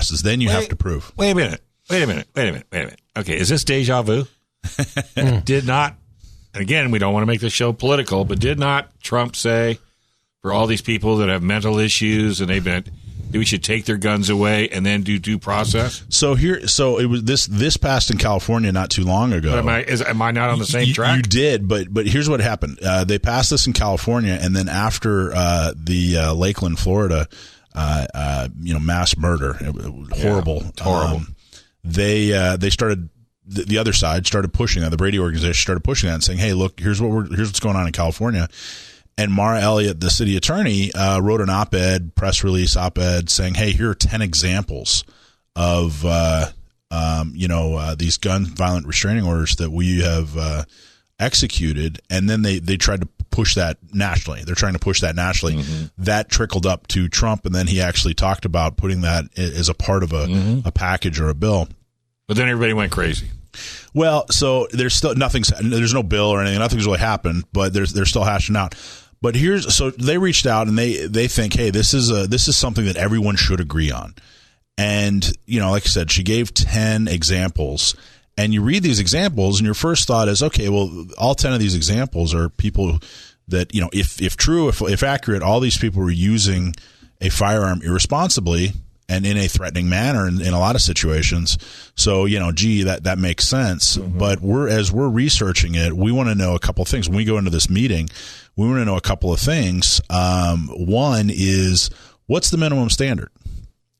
passes. Then you have to prove. Wait a minute. Wait a minute. Wait a minute. Wait a minute. Okay, is this deja vu? Hmm. did not, and again, we don't want to make the show political, but did not Trump say for all these people that have mental issues and they've been, that we should take their guns away and then do due process? So here, so it was this this passed in California not too long ago. Am I is, am I not on the same you, track? you did, but but here's what happened. Uh, they passed this in California, and then after uh, the uh, Lakeland, Florida, uh, uh, you know, mass murder, it was horrible, horrible. um, they uh, they started the, the other side started pushing that. The Brady organization started pushing that and saying, "Hey, look, here's what we're here's what's going on in California." And Mara Elliott, the city attorney, uh, wrote an op-ed, press release op-ed, saying, "Hey, here are ten examples of uh, um, you know uh, these gun violent restraining orders that we have uh, executed." And then they they tried to push that nationally. They're trying to push that nationally. That trickled up to Trump, and then he actually talked about putting that a- as a part of a, a package or a bill. but then everybody went crazy. Well, so there's still nothing's there's no bill or anything. Nothing's really happened, but there's they're still hashing out. But here's so they reached out and they they think, hey, this is a this is something that everyone should agree on. And you know, like I said, she gave ten examples, and you read these examples, and your first thought is, okay, well, all ten of these examples are people that you know, if if true, if if accurate, all these people were using a firearm irresponsibly and in a threatening manner in, in a lot of situations. So, you know, gee, that, that makes sense. Mm-hmm. But we're, as we're researching it, we want to know a couple of things. When we go into this meeting, we want to know a couple of things. Um, one is what's the minimum standard?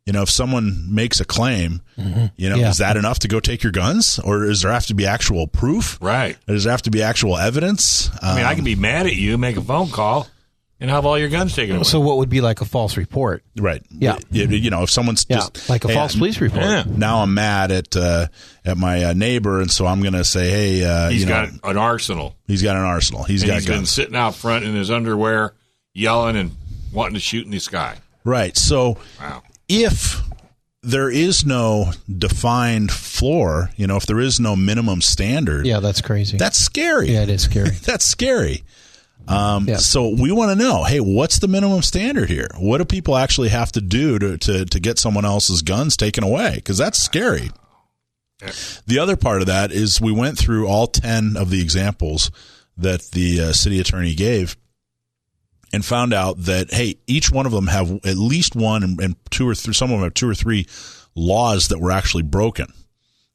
You know, if someone makes a claim, you know, Mm-hmm. Yeah. is that enough to go take your guns or does there have to be actual proof? Right. Does there have to be actual evidence? I mean, I Um, can be mad at you, make a phone call, and have all your guns taken away. So what would be like a false report? right. Yeah. You, you know, if someone's Yeah, just like a "Hey, false I'm- police report. Yeah. now I'm mad at uh, at my uh, neighbor, and so I'm going to say, hey, uh, He's you know, got an arsenal. he's got an arsenal. He's and got he's been guns. sitting out front in his underwear, yelling and wanting to shoot in the sky. Right. So Wow. if there is no defined floor, you know, if there is no minimum standard, Yeah, that's crazy. that's scary. yeah, it is scary. That's scary. Um, Yeah. So we want to know, hey, what's the minimum standard here? What do people actually have to do to, to, to get someone else's guns taken away? Because that's scary. The other part of that is we went through all 10 of the examples that the uh, city attorney gave and found out that, hey, each one of them have at least one and, and two or three, some of them have two or three laws that were actually broken.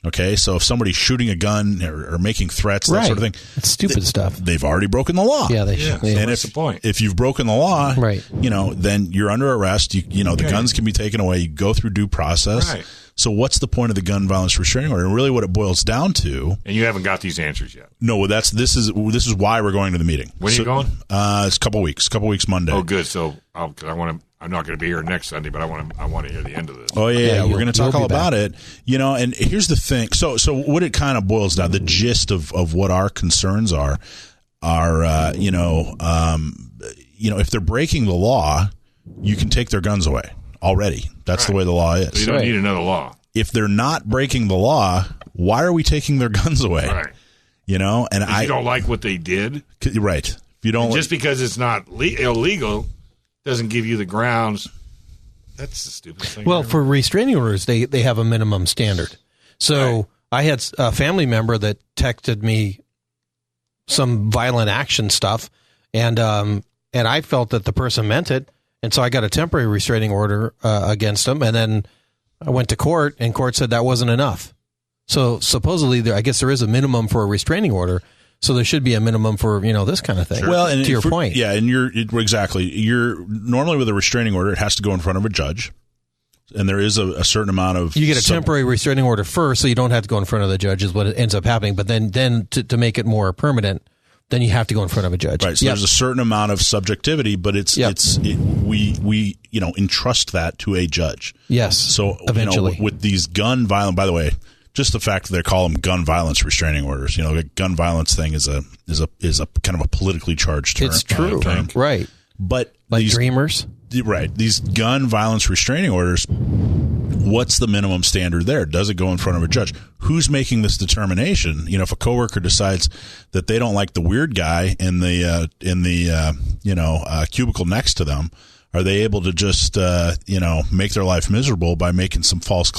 Okay. So if somebody's shooting a gun or, or making threats, that right. sort of thing It's stupid stuff. they've already broken the law. Yeah, they Yeah. should. Yeah. and What's if, the point? if you've broken the law, Right. you know, then you're under arrest. You, you know, the Right. guns can be taken away. You go through due process. Right. So what's the point of the gun violence restraining order? And really what it boils down to, And you haven't got these answers yet. no, that's, this is, this is why we're going to the meeting. When are you So- going? Uh, it's a couple weeks, couple weeks Monday. Oh, good. So, I'll, cause I want to. I'm not going to be here next Sunday, but I want to. I want to hear the end of this. Oh yeah, Yeah, yeah. you'll- we're going to talk you'll be all about it. You know, and here's the thing. So, so what it kind of boils down, the gist of of what our concerns are, are uh, you know, um, you know, if they're breaking the law, you can take their guns away already. That's the way the law So you is. don't right. need another law. If they're not breaking the law, why are we taking their guns away? Right. You know, and If I you don't like what they did, c- right. If you don't, just because it's not le- illegal doesn't give you the grounds. That's the stupid thing. Well, ever. for restraining orders, they, they have a minimum standard. So I had s- a family member that texted me some violent action stuff, and um, and I felt that the person meant it, and so I got a temporary restraining order uh, against them, and then I went to court, and court said that wasn't enough. So supposedly, there, I guess there is a minimum for a restraining order, so there should be a minimum for you know this kind of thing. well, and to your if we're- point, yeah, and you're it- exactly. You're normally with a restraining order, it has to go in front of a judge, and there is a, a certain amount of you get a sub- temporary restraining order first, so you don't have to go in front of the judge. Is what ends up happening. But then, then to, to make it more permanent, then you have to go in front of a judge. Right. So Yep. there's a certain amount of subjectivity, but it's Yep. it's it, we we you know entrust that to a judge. yes. So eventually, you know, with these gun violent. By the way, just the fact that they call them gun violence restraining orders. You know, the gun violence thing is a is a is a kind of a politically charged term. it's true, Thing. right? But Like these dreamers. right these gun violence restraining orders what's the minimum standard there does it go in front of a judge who's making this determination you know if a coworker decides that they don't like the weird guy in the uh, in the uh, you know uh, cubicle next to them Are they able to just uh, you know make their life miserable by making some false